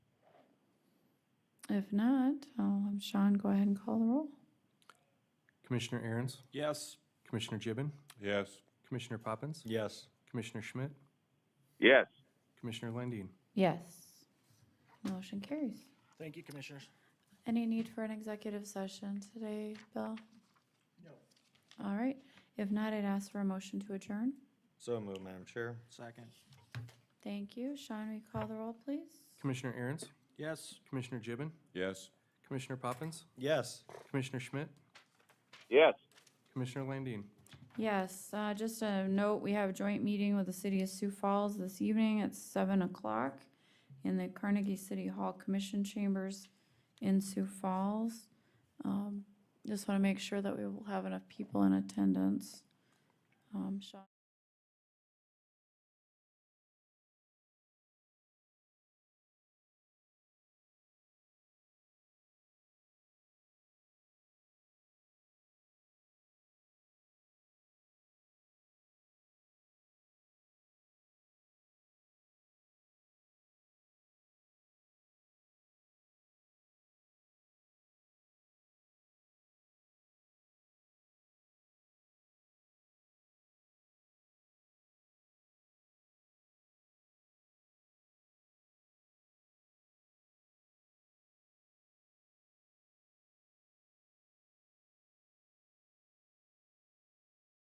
If not, I'll have Sean go ahead and call the roll. Commissioner Aaron's, Yes. Commissioner Gibbon, Yes. Commissioner Poppins, Yes. Commissioner Schmidt, Yes. Commissioner Landine. Yes. Motion carries. Thank you, commissioners. Any need for an executive session today, Bill? No. All right. If not, I'd ask for a motion to adjourn. So moved, Madam Chair. Second. Thank you. Sean, will you call the roll, please? Commissioner Aaron's, Yes. Commissioner Gibbon, Yes. Commissioner Poppins, Yes. Commissioner Schmidt, Yes. Commissioner Landine. Yes, uh, just a note, we have a joint meeting with the city of Sioux Falls this evening at seven o'clock in the Carnegie City Hall Commission Chambers in Sioux Falls. Um, just wanna make sure that we will have enough people in attendance. Um, Sean?